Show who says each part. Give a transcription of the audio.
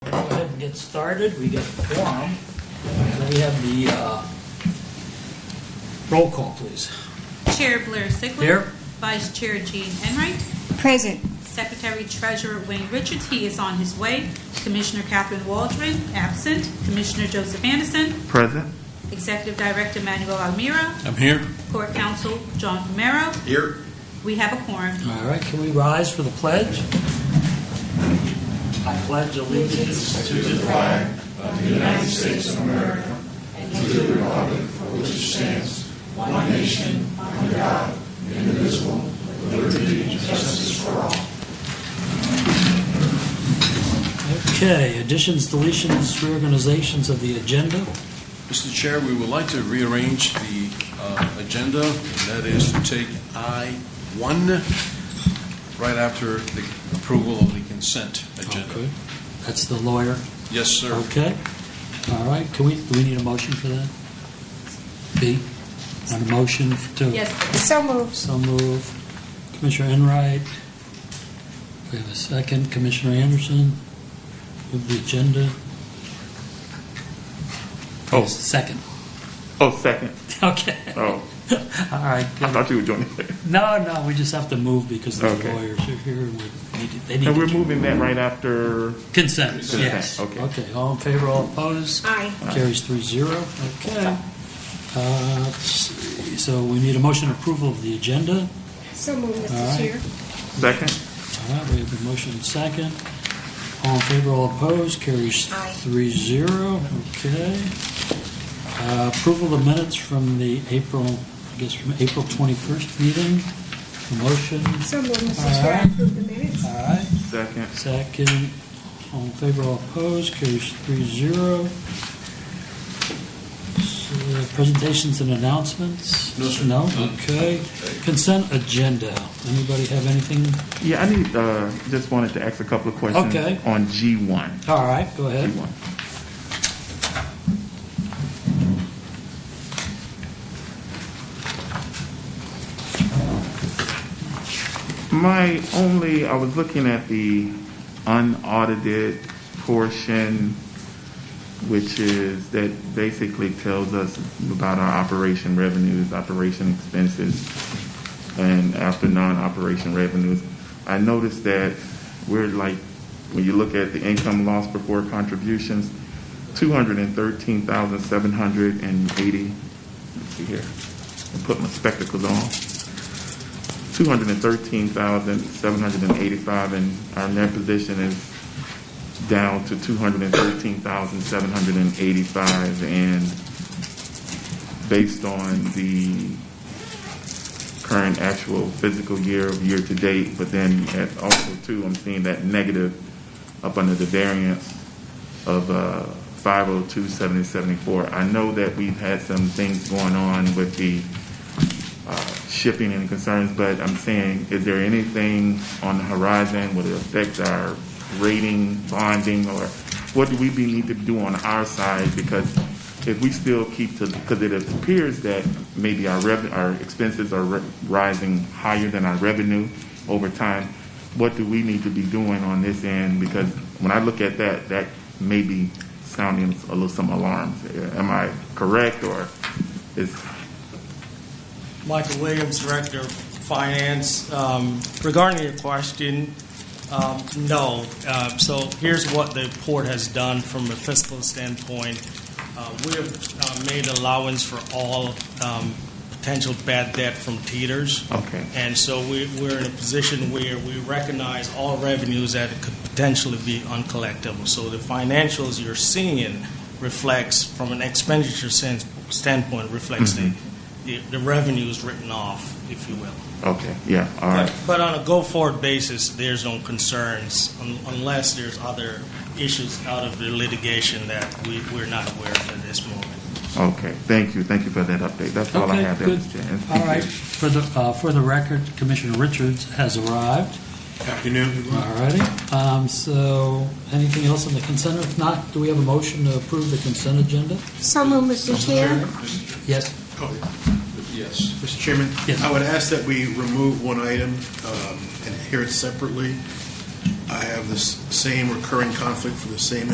Speaker 1: get started, we get the quorum. So we have the, uh, roll call, please.
Speaker 2: Chair Blair Sigler.
Speaker 1: Here.
Speaker 2: Vice Chair Gene Enright.
Speaker 3: Present.
Speaker 2: Secretary Treasurer Wayne Richards, he is on his way. Commissioner Catherine Waldron, absent. Commissioner Joseph Anderson.
Speaker 4: Present.
Speaker 2: Executive Director Manuel Almira.
Speaker 5: I'm here.
Speaker 2: Court Counsel John Romero.
Speaker 5: Here.
Speaker 2: We have a quorum.
Speaker 1: All right, can we rise for the pledge? I pledge allegiance to the flag of the United States of America and to the republic for which it stands, one nation, under God, indivisible, with liberty and justice for all. Okay, additions, deletions, reorganizations of the agenda.
Speaker 5: Mr. Chair, we would like to rearrange the uh, agenda, and that is to take I-1 right after the approval of the consent agenda.
Speaker 1: Okay. Oh, That's the lawyer.
Speaker 5: Yes, sir.
Speaker 1: Okay, all right, can we, do we need a motion for that? B, on a motion to,
Speaker 2: Yes,
Speaker 3: So moved.
Speaker 1: so move, Commissioner Enright, we have a second, Commissioner Anderson, move the agenda.
Speaker 4: Oh.
Speaker 1: Second,
Speaker 4: Oh, second.
Speaker 1: okay, all
Speaker 4: Oh,
Speaker 1: right.
Speaker 4: I thought you were joining.
Speaker 1: No, no, we just have to move because the
Speaker 4: Okay.
Speaker 1: lawyers are here, and we need to- they need
Speaker 4: And we're
Speaker 1: to.
Speaker 4: moving that right after.
Speaker 1: Consent,
Speaker 4: Consent,
Speaker 1: yes.
Speaker 4: okay.
Speaker 1: Okay, all in favor, all opposed?
Speaker 3: Aye.
Speaker 1: Carries three zero. Okay. Uh, let's see. So we need a motion approval of the agenda.
Speaker 3: So moved,
Speaker 1: All
Speaker 3: Mr.
Speaker 1: right.
Speaker 3: Chair.
Speaker 4: Second.
Speaker 1: All right, we have a motion and second. All in favor, all opposed, carries
Speaker 3: Aye.
Speaker 1: three zero. Okay. Uh, Approval of minutes from the April, I guess from April 21st meeting. Motion,
Speaker 3: So moved,
Speaker 1: All
Speaker 3: Mr. Chair. I
Speaker 1: right.
Speaker 3: approve the minutes.
Speaker 1: all right.
Speaker 4: Second.
Speaker 1: Second, all in favor, all opposed, carries three zero. Presentations and announcements?
Speaker 5: No, sir.
Speaker 1: No,
Speaker 5: None.
Speaker 1: okay. Consent agenda, anybody have anything?
Speaker 4: Yeah, I need. Uh, just wanted to ask a couple of questions
Speaker 1: Okay.
Speaker 4: on G one.
Speaker 1: All right, go
Speaker 4: G
Speaker 1: ahead.
Speaker 4: one. My only, I was looking at the unaudited portion, which is that basically tells us about our operation revenues, operation expenses, and after non-operation revenues. I noticed that we're like, when you look at the income loss before contributions, two hundred and thirteen thousand seven hundred and eighty. Let's see here. I Put my spectacles on. 213,785, and our net position is down to 213,785. And based on the current actual physical year of year to date, but then at also too, I'm seeing that negative up under the variance of uh, 502,774. I know that we've had some things going on with the shipping and concerns, but I'm saying, is there anything on the horizon? Would it affect our rating, bonding, or what do we be, need to do on our side? Because if we still keep to, because it appears that maybe our rev, our expenses are ri- rising higher than our revenue over time. What do we need to be doing on this end? Because when I look at that, that may be sounding a little some alarms. Am I correct or is
Speaker 6: Michael Williams, Director of Finance. Um, Regarding your question, um, no. Uh, So here's what the port has done from a fiscal standpoint. Uh, We have uh, made allowance for all um, potential bad debt from teeters.
Speaker 4: okay?
Speaker 6: And so we- we're in a position where we recognize all revenues that could potentially be uncollectible. So the financials you're seeing reflects, from an expenditure sense- standpoint, reflects the
Speaker 4: Mm-hmm.
Speaker 6: the the revenues written off, if you will.
Speaker 4: Okay, yeah, all right.
Speaker 6: But- But on a go-forward basis, there's no concerns un- unless there's other issues out of the litigation that we- we're not aware of at this moment.
Speaker 4: Okay, thank you, thank you for that update. That's all I
Speaker 1: Okay,
Speaker 4: have there,
Speaker 1: good.
Speaker 4: Mr. Chairman.
Speaker 1: All right, for the, uh, for the record, Commissioner Richards has arrived.
Speaker 5: Afternoon.
Speaker 1: All righty, Um, so anything else on the consent? If not, do we have a motion to approve the consent agenda?
Speaker 3: So moved, Mr. Chair.
Speaker 1: Yes,
Speaker 5: Yes.
Speaker 7: Mr. Chairman?
Speaker 1: Yes.
Speaker 7: I would ask that we remove one item um, and hear it separately. I have this same recurring conflict for the same